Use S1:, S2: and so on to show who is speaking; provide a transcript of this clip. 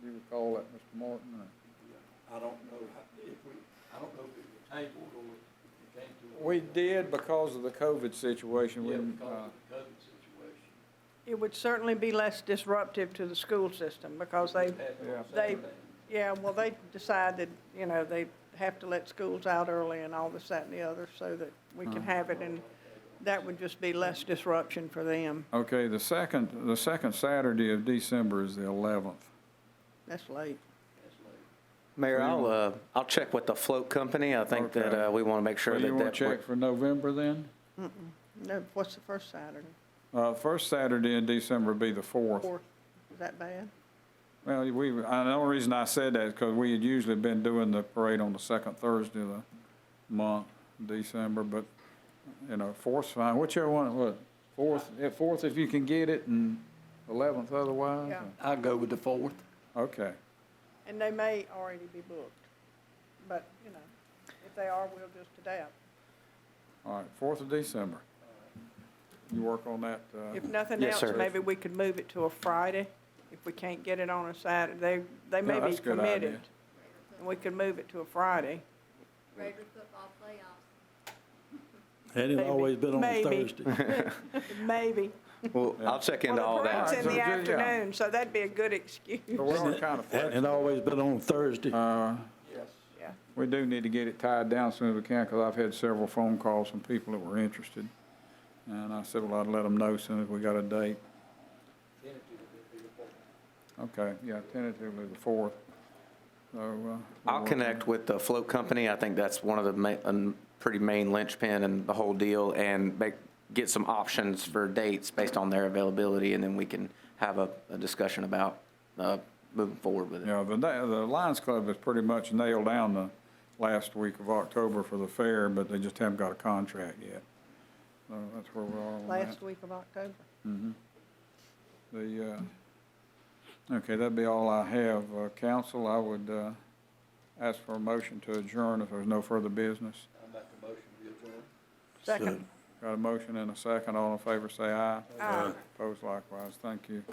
S1: Do you recall that, Mr. Martin, or?
S2: I don't know how- if we, I don't know if it was tabled or if it came to. a-
S1: We did because of the COVID situation, we,
S2: Yeah, because
S1: uh,
S2: of the COVID situation.
S3: It would certainly be less disruptive to the school system because they,
S2: That's what
S1: Yeah.
S2: I'm
S3: they,
S2: saying.
S3: yeah, well, they decided, you know, they have to let schools out early and all this, that, and the other so that we can have it and that would just be less disruption for them.
S1: uh, okay, the second, the second Saturday of December is the eleventh.
S3: That's late.
S2: That's late.
S4: Mayor, I'll, uh, I'll check with the float company. I think that,
S1: Okay.
S4: uh, we want to make
S1: So
S4: sure that.
S1: you wanna
S4: that
S1: check for November then?
S3: No, what's the first Saturday?
S1: Uh, first Saturday in December would be the fourth.
S3: Fourth, is that bad?
S1: Well, we, and the only reason I said that is because we had usually been doing the parade on the second Thursday of the month, December, but, you know, fourth's fine, whichever one, what, fourth, yeah, fourth if you can get it, and eleventh otherwise?
S3: Yeah.
S2: I'll go with the fourth.
S1: Okay,
S3: And they may already be booked, but, you know, if they are, we'll just adapt.
S1: all right, fourth of December. You work on that, uh,
S3: If nothing
S4: Yes,
S3: else,
S4: sir.
S3: maybe we could move it to a Friday if we can't get it on a Saturday. They, they may
S1: No,
S3: be
S1: that's a good idea.
S3: committed. And we could move it to a Friday.
S5: Rotary football playoffs.
S6: Had it
S3: Maybe.
S6: always been on a
S3: Maybe.
S6: Thursday.
S3: Maybe.
S4: Well, I'll check into all
S3: Well, the
S4: that.
S3: parade's in the
S1: Yeah.
S3: afternoon, so that'd be a good excuse.
S1: so we're on kind of
S6: Hadn't
S1: flexible.
S6: it always been on Thursday.
S1: Uh,
S2: Yes.
S3: Yeah.
S1: We do need to get it tied down soon as we can, because I've had several phone calls from people that were interested. And I said, well, I'd let them know as soon as we got a date.
S2: Tentatively, it'll be the fourth.
S1: Okay, yeah, tentatively the fourth. So, uh. we'll
S4: I'll
S1: work
S4: connect with the float company. I think that's one of the ma- um, pretty main linchpin in the whole deal and make, get some options for dates based on their availability and then we can have a, a discussion about, uh, moving forward with
S1: on-
S4: it.
S1: Yeah, the, na- the Lions Club has pretty much nailed down the last week of October for the fair, but they just haven't got a contract yet. So that's where we're all on that.
S3: Last week of October.
S1: Mm-hmm. The, uh, okay, that'd be all I have. Uh, council, I would, uh, ask for a motion to adjourn if there's no further business.
S2: I make a motion to adjourn.
S3: Second.
S1: Got a motion and a second. All in favor, say aye.
S3: Aye.
S1: Opposed likewise. Thank you.